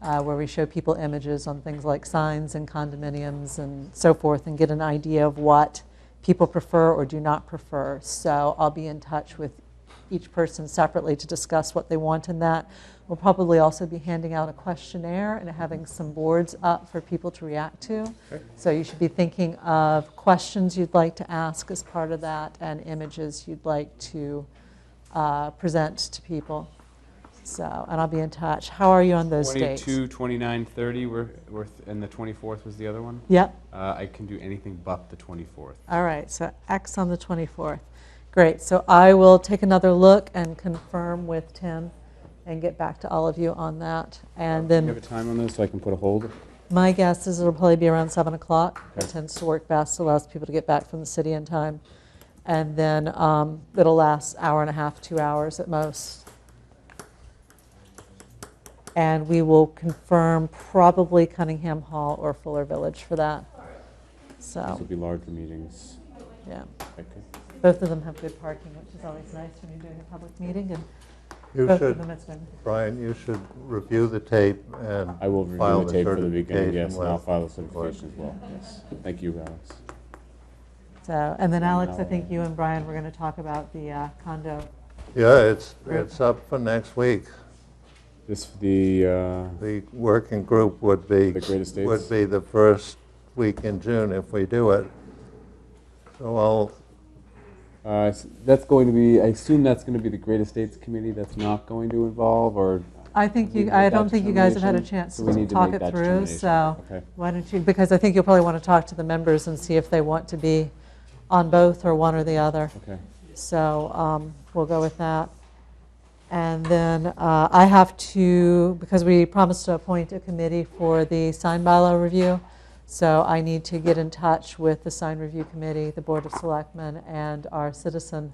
uh, where we show people images on things like signs and condominiums and so forth and get an idea of what people prefer or do not prefer. So I'll be in touch with each person separately to discuss what they want in that. We'll probably also be handing out a questionnaire and having some boards up for people to react to. So you should be thinking of questions you'd like to ask as part of that and images you'd like to uh, present to people. So, and I'll be in touch. How are you on those dates? 22, 29, 30, were, were th- and the 24th was the other one? Yep. Uh, I can do anything but the 24th. All right, so X on the 24th. Great, so I will take another look and confirm with Tim and get back to all of you on that. And Do you then have a time on those so I can put a hold? my guess is it'll probably be around 7 o'clock. It Okay. tends to work best, allows people to get back from the city in time. And then um, it'll last hour and a half, two hours at most. And we will confirm probably Cunningham Hall or Fuller Village for that. These will So, be larger meetings. yeah. Okay. Both of them have good parking, which is always nice when you're doing a public meeting, and You both of should, them it's been, Brian, you should review the tape and I will file review the the tape for the weekend, certification yes, and I'll with- file the certification as well, yes. Thank you, Alex. so, and then Alex, I Now, think uh, you and Brian were going to talk about the uh, condo. Yeah, it's, Right. it's up for next week. This, the, uh, The working group would be. The Great Estates? Would be the first week in June if we do it. So I'll, uh, s- that's going to be, I assume that's going to be the Great Estates Committee that's not going to involve, or? I think Need you, to I make that don't think you guys have had a determination? chance So we to need to talk make it that through, determination. so Okay. why don't you, because I think you'll probably want to talk to the members and see if they want to be on both or one or the other. Okay. So um, we'll go with that. And then uh, I have to, because we promised to appoint a committee for the sign bylaw review, so I need to get in touch with the sign review committee, the Board of Selectmen, and our citizen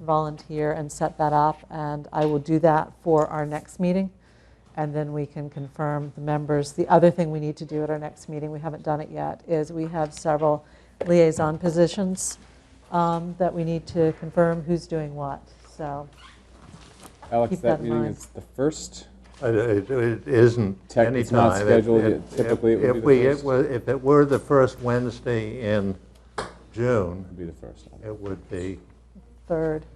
volunteer and set that up. And I will do that for our next meeting, and then we can confirm the members. The other thing we need to do at our next meeting, we haven't done it yet, is we have several liaison positions um, that we need to confirm who's doing what. So, Alex, Keep that that in meeting mind. is the first? I- it it isn't Tech- anytime. it's not If- scheduled. if- Typically, it would if be the we- it first. were- If it were the first Wednesday in It'll June, be the first. it would be third,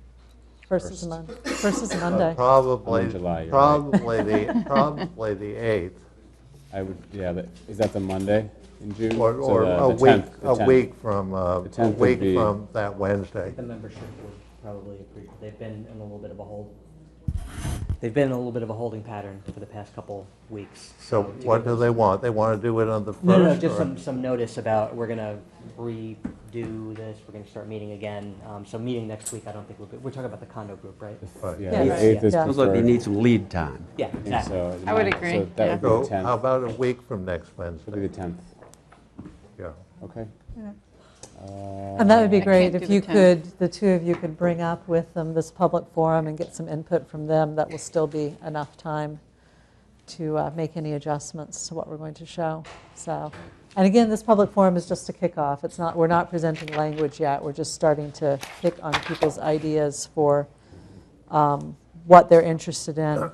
first is a First. Monday. First is a but Monday. probably, in July, you're right. probably the, probably the 8th. I would, yeah, that, is that the Monday in June? Or, So or the- the a week, 10th, the a 10th. week from, uh, The a 10th would week be- from that Wednesday. The membership would probably agree. They've been in a little bit of a hold. They've been in a little bit of a holding pattern for the past couple weeks. So to give what do us- they want? They want to do it on the No, no, first? just or- some, some notice about, we're gonna redo this, we're gonna start meeting again. Um, so meeting next week, I don't think we'll be, we're talking about the condo group, right? Right. Yeah, Yeah, the right. 8th is Yeah. preferred. Sounds like they need some lead time. Yeah, I think exactly. so. I would So agree, that would So be the 10th. how about a week from next It'll be Wednesday? the 10th, Yeah. okay? Uh, And that would be Um, I great can't if do the you 10th. could, the two of you could bring up with them this public forum and get some input from them. That will still be enough time to uh, make any adjustments to what we're going to show. So, and again, this public forum is just a kickoff. It's not, we're not presenting language yet. We're just starting to pick on people's ideas for um, what they're interested in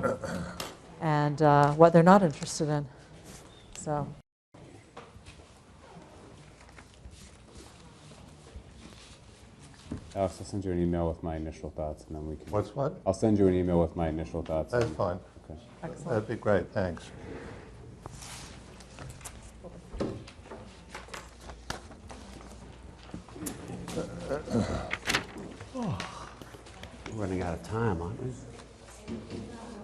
and uh, what they're not interested in. So, Alex, I'll send you an email with my initial thoughts, and then we can, What's what? I'll send you an email with my initial thoughts. That's and- fine. okay. excellent. That'd be great, thanks. We're running out of time, aren't we?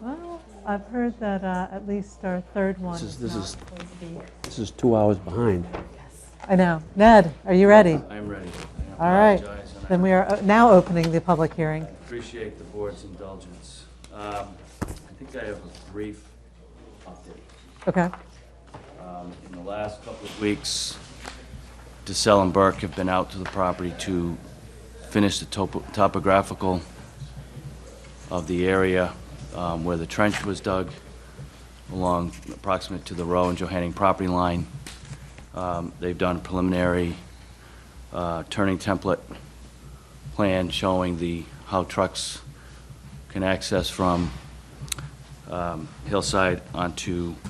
Well, I've heard that uh, at least our third one This is- is this not is- going to be. This is two hours behind. I know. Ned, are you ready? I'm ready. All right. I apologize, and Then we are o- now opening the public hearing. I appreciate the board's indulgence. Um, I think I have a brief update. Okay. Um, In the last couple of weeks, DeSalle and Burke have been out to the property to finish the topo- topographical of the area um, where the trench was dug along approximate to the Row and Johanning property line. Um, They've done preliminary uh, turning template plan showing the, how trucks can access from um, hillside onto